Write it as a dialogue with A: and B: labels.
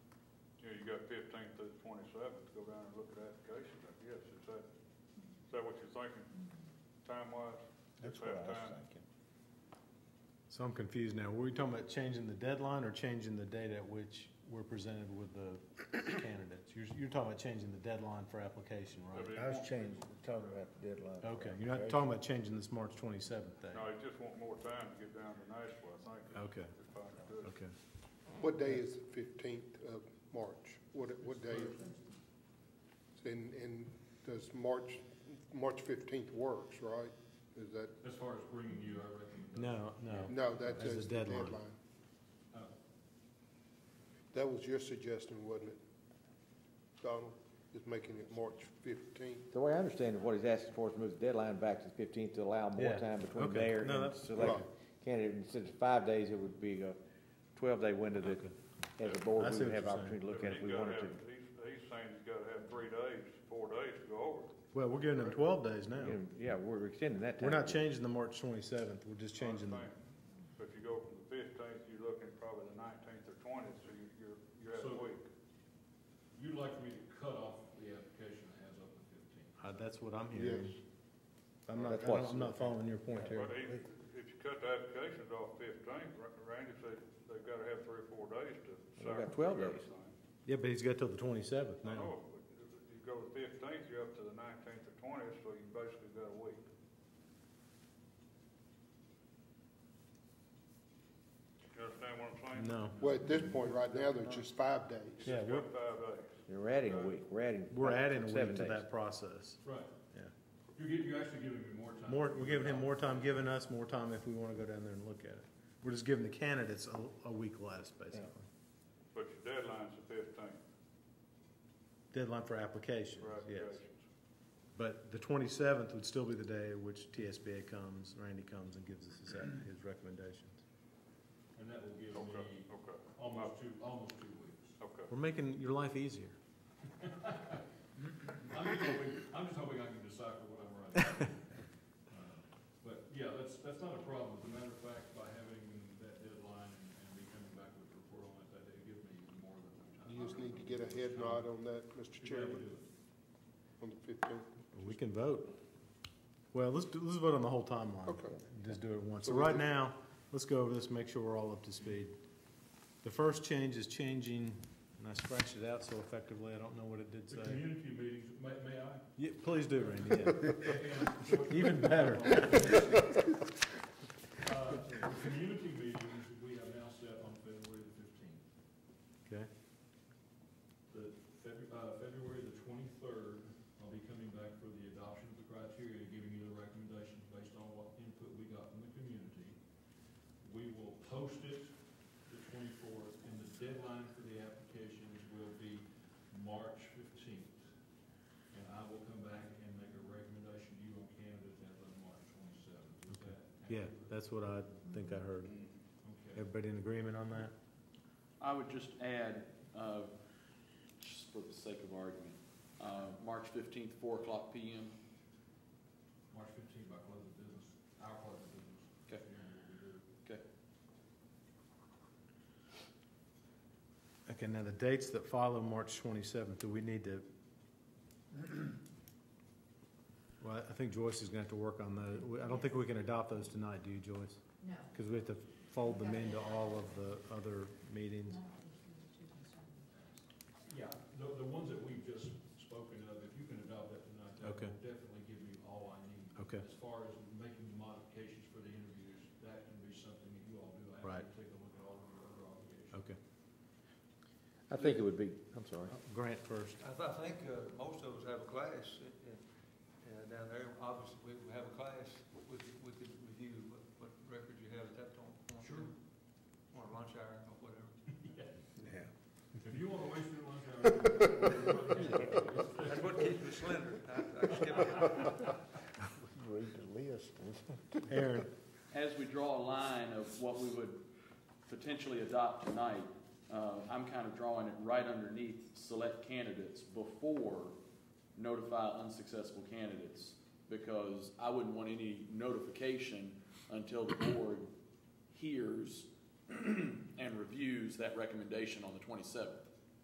A: seventh, go down and look at applications, I guess, is that, is that what you're thinking, time-wise?
B: That's
A: Have
B: what I was
A: time?
B: thinking.
C: So I'm confused now. Were we talking about changing the deadline or changing the date at which we're presented with the candidates? You're, you're talking about changing the deadline for application, right?
A: Every-
B: I was changing, talking about the deadline. for
C: Okay, you're not talking about changing this March twenty-seventh thing?
A: No, they just want more time to get down to Nashville, I think. is-
C: Okay.
A: is if I understood.
C: Okay.
D: What day is the fifteenth of March? What, what day? is it? And, and does March, March fifteenth works, right? Is that,
E: As far as bringing you, I reckon.
C: No, no.
D: no, that's
C: As
D: just
C: the
D: the
C: deadline.
D: deadline.
E: Uh,
D: That was your suggestion, wasn't it, Donald? Is making it March fifteenth?
F: The way I understand it, what he's asking for is to move the deadline back to the fifteenth to allow more
C: Yeah,
F: time between
C: okay.
F: there
C: No,
F: and
C: that's-
F: select
D: Right.
F: candidate. Instead of five days, it would be a twelve-day window that, as a
C: I
F: board,
C: see
F: we would
C: what
F: have
C: you're
F: opportunity to look
A: But
F: at if
A: he's
F: we
A: gotta
F: wanted to.
A: have- He's, he's saying he's gotta have three days, four days to go over.
C: Well, we're giving them twelve days
F: You
C: now.
F: know, Yeah, we're extending that time.
C: We're not changing the March twenty-seventh. We're just changing the,
A: Understand. So if you go from the fifteenth, you're looking at probably the nineteenth or twentieth, so you- you're, you're at a
E: So-
A: week.
E: You'd like me to cut off the application that has up to fifteen?
C: uh, that's what I'm
D: Yes.
C: hearing. I'm not, I
F: That's what-
C: don't- I'm not following your point
A: But
C: here.
A: if, if you cut the applications off fifteenth, Randy said they've gotta have three or four days to.
F: They've
A: sift
F: got 12
A: through
F: days.
A: everything.
C: Yeah, but he's got till the twenty-seventh
A: I
C: now.
A: know, Oh, but if you go to fifteenth, you're up to the nineteenth or twentieth, so you basically got a week. You understand what I'm saying?
C: No.
D: Well, at this point, right now, there's just five days.
C: Yeah,
A: It's
C: we're,
A: got five days.
F: You're adding a week, we're adding.
C: we're adding a
F: seven
C: week to
F: days.
C: that process.
E: Right.
C: Yeah.
E: You're giving, you're actually giving me more time.
C: More, we're giving him more time, giving us more time if we want to go down there and look at it. We're just giving the candidates a, a week less, basically.
A: But your deadline's the fifteenth
C: Deadline for applications,
A: for
C: yes.
A: applications.
C: But the twenty-seventh would still be the day at which TSBA comes, Randy comes and gives us his, his recommendations.
E: And that will give
A: Okay,
E: me
A: okay,
E: almost two, almost two weeks.
A: okay.
C: We're making your life easier.
E: I'm just hoping, I'm just hoping I can decipher what I'm writing. Uh, But yeah, that's, that's not a problem. As a matter of fact, by having that deadline and me coming back with a report on it, that it gives me more than enough time.
D: You just need to get a head nod on that, Mr.
E: To be able to do
D: Chairman,
E: it.
D: on the fifteenth.
C: We can vote. Well, let's, do- let's vote on the whole timeline.
D: Okay.
C: Just do it once.
D: So
C: So
D: we-
C: right now, let's go over this, make sure we're all up to speed. The first change is changing, and I scratched it out so effectively, I don't know what it did
E: The
C: say.
E: community meetings, may, may I?
C: Yeah, please do, Randy, yeah.
E: And what-
C: Even better.
E: Uh, The community meetings, we have now set on February the fifteenth.
C: Okay,
E: The Feb- uh, February the twenty-third, I'll be coming back for the adoption of the criteria, giving you the recommendations based on what input we got from the community. We will post it the twenty-fourth, and the deadline for the applications will be March fifteenth. And I will come back and make a recommendation to you on candidates as of March twenty-seventh. Is that
C: yeah,
E: accurate?
C: that's what I think I heard.
E: Okay.
C: Everybody in agreement on that?
G: I would just add, uh, just for the sake of argument, uh, March 15th, 4 o'clock PM.
E: March fifteenth by close of business, our close of business.
G: Okay.
E: Figuring what we do.
G: Okay.
C: Okay, now the dates that follow March 27th, do we need to? Well, I think Joyce is going to have to work on those. We- I don't think we can adopt those tonight, do you, Joyce?
H: No.
C: Because we have to fold them into all of the other meetings.
E: Yeah, the, the ones that we've just spoken of, if you can adopt that tonight, that
C: Okay.
E: will definitely give me all I need.
C: Okay.
E: As far as making the modifications for the interviews, that can be something that you all do. I have
C: Right.
E: to take a look at all of your other obligations.
C: Okay.
F: I think it would be, I'm sorry.
C: Grant first.
I: I, I think uh, most of us have a class, uh, uh, down there, obviously, we- we have a class, we could, we could review what, what records you have at that point.
E: Sure.
I: Or lunch hour, or whatever.
B: Yeah.
E: If you want to waste your lunch hour.
I: That's what keeps me slender, I, I skip it.
B: Read the list.
C: Aaron,
G: As we draw a line of what we would potentially adopt tonight, uh, I'm kind of drawing it right underneath select candidates before notify unsuccessful candidates, because I wouldn't want any notification until the board hears and reviews that recommendation on the 27th.